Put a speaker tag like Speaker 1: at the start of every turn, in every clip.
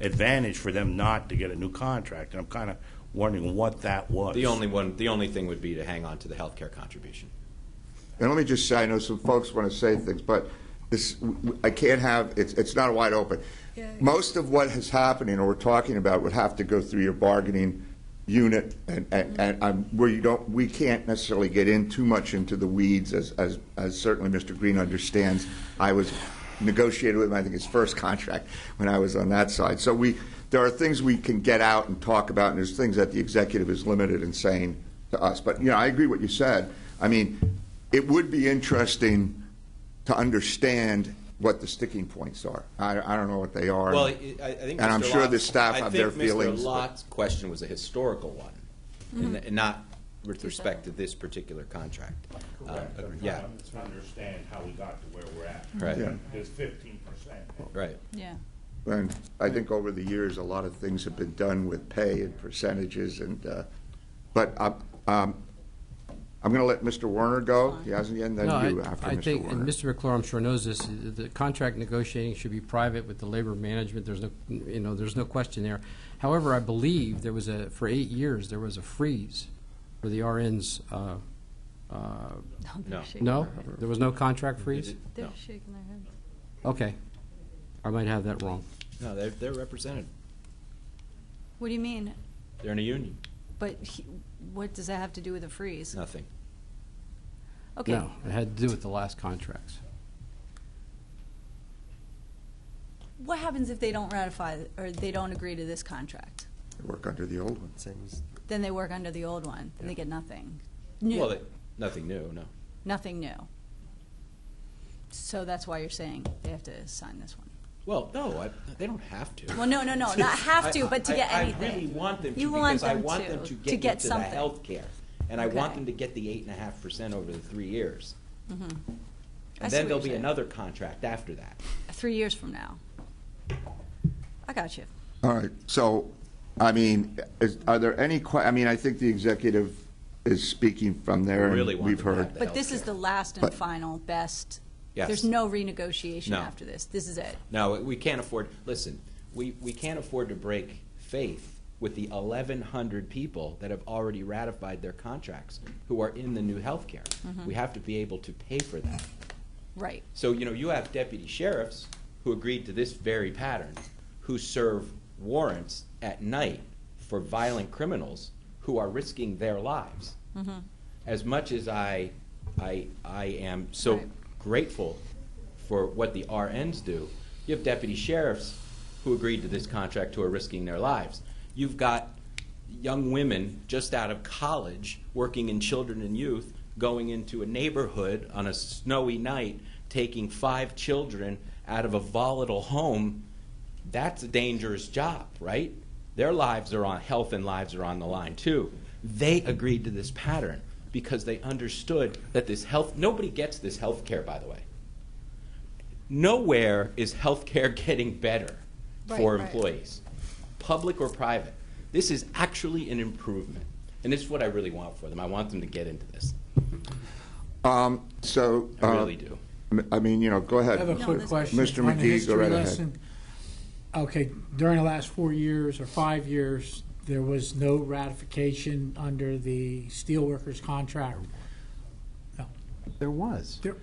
Speaker 1: advantage for them not to get a new contract. And I'm kind of wondering what that was.
Speaker 2: The only one, the only thing would be to hang on to the healthcare contribution.
Speaker 3: And let me just say, I know some folks want to say things, but this, I can't have, it's, it's not wide open.
Speaker 4: Yeah.
Speaker 3: Most of what is happening or we're talking about would have to go through your bargaining unit and, and, and I'm, where you don't, we can't necessarily get in too much into the weeds as, as, as certainly Mr. Green understands. I was negotiated with him, I think his first contract when I was on that side. So we, there are things we can get out and talk about and there's things that the executive is limited in saying to us. But, you know, I agree what you said. I mean, it would be interesting to understand what the sticking points are. I, I don't know what they are.
Speaker 2: Well, I, I think.
Speaker 3: And I'm
Speaker 2: Mr.
Speaker 3: sure
Speaker 2: Lott-
Speaker 3: the staff
Speaker 2: I
Speaker 3: have
Speaker 2: think
Speaker 3: their feelings,
Speaker 2: Mr.
Speaker 3: but-
Speaker 2: Lott's question was a historical one, and
Speaker 4: Mm-hmm.
Speaker 2: and not with respect to this particular contract. Uh, agree- Yeah,
Speaker 1: To understand how we got to where we're at.
Speaker 2: Right. Yeah.
Speaker 1: There's fifteen percent.
Speaker 2: right.
Speaker 4: Yeah.
Speaker 3: And I think over the years, a lot of things have been done with pay and percentages and, uh, but I'm, um, I'm going to let Mr. Werner go. He hasn't yet, and then
Speaker 5: No, I-
Speaker 3: you after
Speaker 5: I
Speaker 3: Mr.
Speaker 5: think, and
Speaker 3: Werner.
Speaker 5: Mr. McClure, I'm sure knows this, the contract negotiating should be private with the labor management, there's no, you know, there's no question there. However, I believe there was a, for eight years, there was a freeze for the RNs, uh, uh,
Speaker 2: No.
Speaker 5: no? There was no contract freeze?
Speaker 4: They're
Speaker 2: No.
Speaker 4: shaking their heads.
Speaker 5: Okay, I might have that wrong.
Speaker 2: No, they're, they're represented.
Speaker 4: What do you mean?
Speaker 2: They're in a union.
Speaker 4: But he, what does that have to do with a freeze?
Speaker 2: Nothing.
Speaker 4: Okay.
Speaker 5: No, it had to do with the last contracts.
Speaker 4: What happens if they don't ratify or they don't agree to this contract?
Speaker 3: Work under the old ones.
Speaker 4: Then they work under the old one and they get nothing. New.
Speaker 2: Well, they- nothing new, no.
Speaker 4: nothing new. So that's why you're saying they have to sign this one.
Speaker 2: Well, no, I, they don't have to.
Speaker 4: Well, no, no, no, not have to, but to
Speaker 2: I-
Speaker 4: get
Speaker 2: I-
Speaker 4: anything.
Speaker 2: I really want them to
Speaker 4: You want
Speaker 2: because I
Speaker 4: them
Speaker 2: want
Speaker 4: to,
Speaker 2: them to
Speaker 4: to
Speaker 2: get
Speaker 4: get
Speaker 2: into the
Speaker 4: something.
Speaker 2: healthcare. And I want
Speaker 4: Okay.
Speaker 2: them to get the eight and a half percent over the three years.
Speaker 4: I
Speaker 2: And
Speaker 4: see
Speaker 2: then
Speaker 4: what
Speaker 2: there'll
Speaker 4: you're
Speaker 2: be
Speaker 4: saying.
Speaker 2: another contract after that.
Speaker 4: Three years from now. I got you.
Speaker 3: All right, so, I mean, is, are there any que, I mean, I think the executive is speaking from there, and
Speaker 2: Really want
Speaker 3: we've
Speaker 2: them to
Speaker 3: heard.
Speaker 2: have that.
Speaker 4: But this is
Speaker 2: healthcare.
Speaker 4: the last and
Speaker 3: But-
Speaker 4: final best.
Speaker 2: Yes.
Speaker 4: There's no renegotiation
Speaker 2: No.
Speaker 4: after this. This is it.
Speaker 2: No, we can't afford, listen, we, we can't afford to break faith with the 1,100 people that have already ratified their contracts who are in the new healthcare.
Speaker 4: Mm-hmm.
Speaker 2: We have to be able to pay for that.
Speaker 4: Right.
Speaker 2: So, you know, you have deputy sheriffs who agreed to this very pattern, who serve warrants at night for violent criminals who are risking their lives.
Speaker 4: Mm-hmm.
Speaker 2: As much as I, I, I am so
Speaker 4: Right.
Speaker 2: grateful for what the RNs do, you have deputy sheriffs who agreed to this contract who are risking their lives. You've got young women just out of college working in children and youth going into a neighborhood on a snowy night taking five children out of a volatile home that's a dangerous job right their lives are on health and lives are on the line too they agreed to this pattern because they understood that this health nobody gets this health care by the way nowhere is healthcare getting better
Speaker 4: Right,
Speaker 2: for
Speaker 4: right.
Speaker 2: employees, public or private. This is actually an improvement. And this is what I really want for them. I want them to get into this.
Speaker 3: Um, so.
Speaker 2: I
Speaker 3: uh,
Speaker 2: really do.
Speaker 3: m- I mean, you know, go ahead.
Speaker 6: I have a quick
Speaker 4: that's
Speaker 6: question.
Speaker 3: Mr.
Speaker 6: on
Speaker 3: McGee,
Speaker 6: the
Speaker 3: go
Speaker 6: history
Speaker 3: right ahead.
Speaker 6: lesson. Okay, during the last four years or five years, there was no ratification under the steelworkers contract.
Speaker 2: There was.
Speaker 6: There-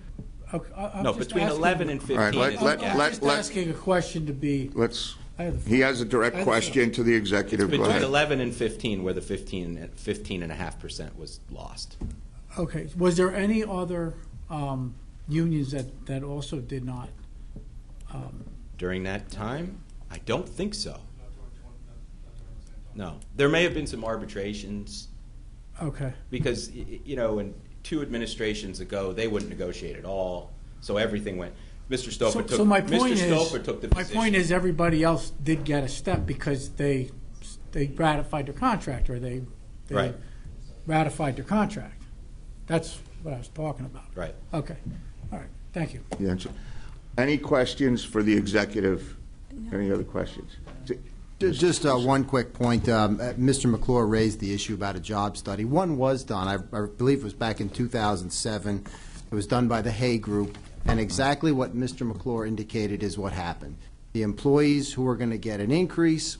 Speaker 6: okay, I- I'm
Speaker 2: No,
Speaker 6: just
Speaker 2: between
Speaker 6: asking-
Speaker 2: 11 and 15.
Speaker 3: right, let-
Speaker 2: is-
Speaker 3: let-
Speaker 2: yeah.
Speaker 6: I'm
Speaker 3: let-
Speaker 6: just asking a question to be,
Speaker 3: Let's,
Speaker 6: I have the-
Speaker 3: he has a direct
Speaker 6: I-
Speaker 3: question to the executive. Go
Speaker 2: between
Speaker 3: ahead.
Speaker 2: 11 and 15 where the 15, and- 15 and a half percent was lost.
Speaker 6: okay, was there any other um, unions that, that also did not?
Speaker 2: During that time, I don't think so. No. There may have been some arbitrations.
Speaker 6: Okay,
Speaker 2: because y- y- you know, in two administrations ago, they wouldn't negotiate at all, so everything went. Mr. Stoper
Speaker 6: so
Speaker 2: took.
Speaker 6: so my
Speaker 2: Mr.
Speaker 6: point is.
Speaker 2: Stoper took the
Speaker 6: My
Speaker 2: position.
Speaker 6: point is, everybody else did get a step because they, they ratified their contract, or they. they
Speaker 2: Right.
Speaker 6: ratified their contract. That's what I was talking about.
Speaker 2: Right.
Speaker 6: Okay, all right, thank you.
Speaker 3: Yeah, so- Any questions for the executive? Any other questions?
Speaker 7: Just uh, one quick point. Um, uh, Mr. McClure raised the issue about a job study. One was done, I I believe it was back in 2007. It was done by the Hay Group, and exactly what Mr. McClure indicated is what happened. the employees who are going to get an increase